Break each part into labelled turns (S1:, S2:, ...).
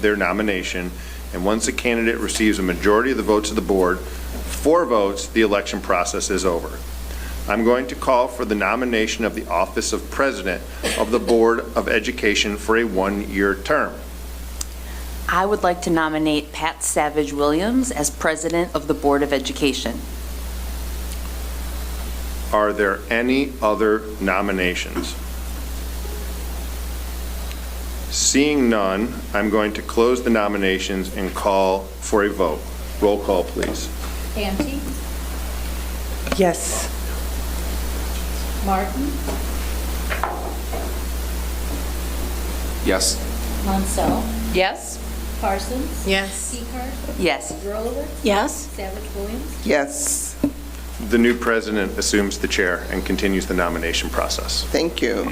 S1: their nomination, and once the candidate receives a majority of the votes of the board, four votes, the election process is over. I'm going to call for the nomination of the office of president of the Board of Education for a one-year term.
S2: I would like to nominate Pat Savage Williams as President of the Board of Education.
S1: Are there any other nominations? Seeing none, I'm going to close the nominations and call for a vote. Roll call, please.
S3: Ante,
S4: Yes.
S3: Martin,
S5: Yes.
S3: Monsell,
S2: Yes?
S3: Parsons.
S4: Yes.
S3: Seacard,
S2: Yes.
S3: Rolowitz,
S2: Yes.
S3: Savage Williams.
S4: Yes,
S1: The new president assumes the chair and continues the nomination process.
S6: Thank you.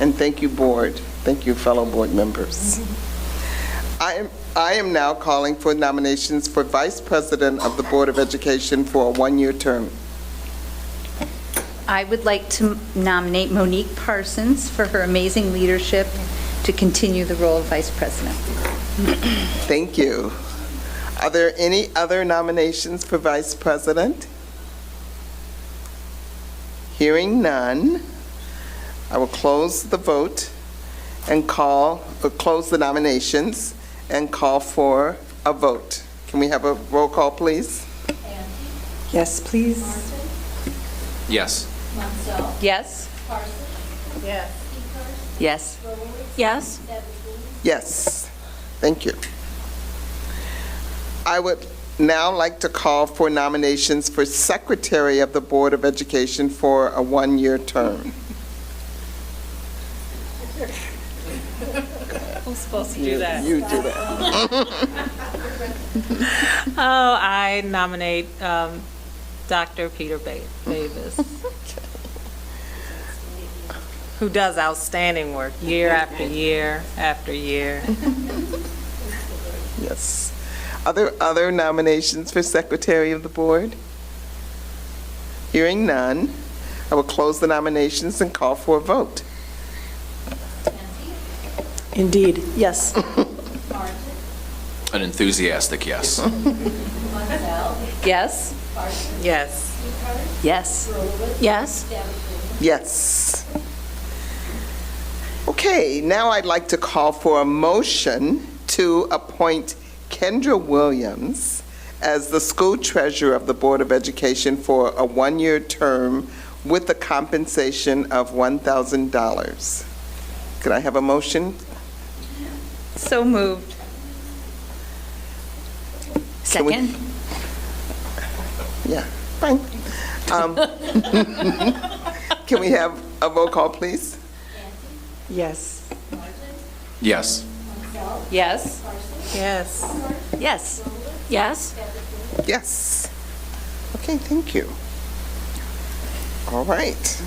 S6: And thank you, board. Thank you, fellow board members. I am, I am now calling for nominations for Vice President of the Board of Education for a one-year term.
S7: I would like to nominate Monique Parsons for her amazing leadership to continue the role of Vice President.
S6: Thank you. Are there any other nominations for Vice President? Hearing none, I will close the vote and call, uh, close the nominations and call for a vote. Can we have a roll call, please?
S4: yes, please.
S3: Martin,
S5: Yes.
S3: Monsell,
S2: Yes?
S3: Parsons,
S7: Yes.
S3: Seacard,
S2: Yes.
S3: Rolowitz,
S2: Yes.
S3: Savage Williams.
S6: Yes, thank you. I would now like to call for nominations for Secretary of the Board of Education for a one-year term.
S8: I'm supposed to do that.
S6: You do that.
S8: Oh, I nominate um, Dr. Peter Ba- Davis, who does outstanding work year after year after year.
S6: Yes. Are there other nominations for Secretary of the Board? Hearing none, I will close the nominations and call for a vote.
S4: Indeed, yes.
S5: An enthusiastic yes.
S2: Yes?
S8: Yes.
S2: Yes. Yes.
S6: Yes. Okay, now I'd like to call for a motion to appoint Kendra Williams as the school treasurer of the Board of Education for a one-year term with a compensation of $1,000. Could I have a motion?
S7: So moved.
S6: we-
S2: Second?
S6: Yeah, fine. Um, Can we have a roll call, please?
S4: Yes.
S5: Yes.
S2: Yes.
S8: Yes.
S2: Yes. Yes.
S6: Yes. Okay, thank you. All right.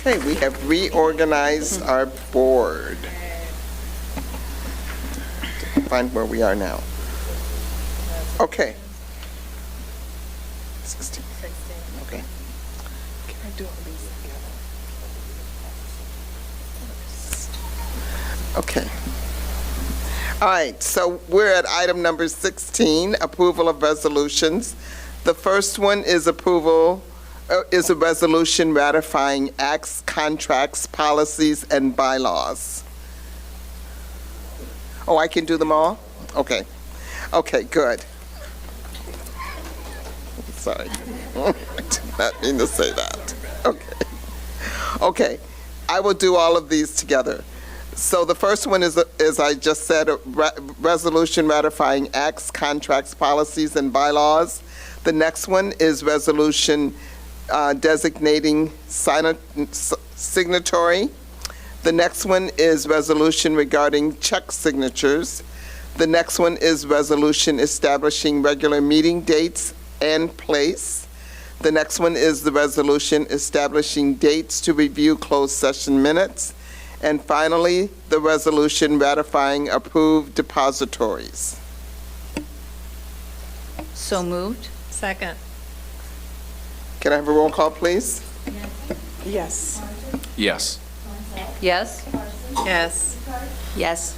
S6: Okay, we have reorganized our board. Find where we are now. Okay. 16. Okay. Can I do all these together? Okay. All right, so we're at item number 16, approval of resolutions. The first one is approval, uh, is a resolution ratifying acts, contracts, policies, and bylaws. Oh, I can do them all? Okay. Okay, good. Sorry. I did not mean to say that. Okay. Okay, I will do all of these together. So the first one is, as I just said, a re- resolution ratifying acts, contracts, policies, and bylaws. The next one is resolution uh, designating signa- s- signatory. The next one is resolution regarding check signatures. The next one is resolution establishing regular meeting dates and place. The next one is the resolution establishing dates to review closed session minutes. And finally, the resolution ratifying approved depositories.
S7: So moved.
S8: Second.
S6: Can I have a roll call, please?
S4: Yes.
S5: Yes.
S2: Yes.
S8: Yes.
S2: Yes.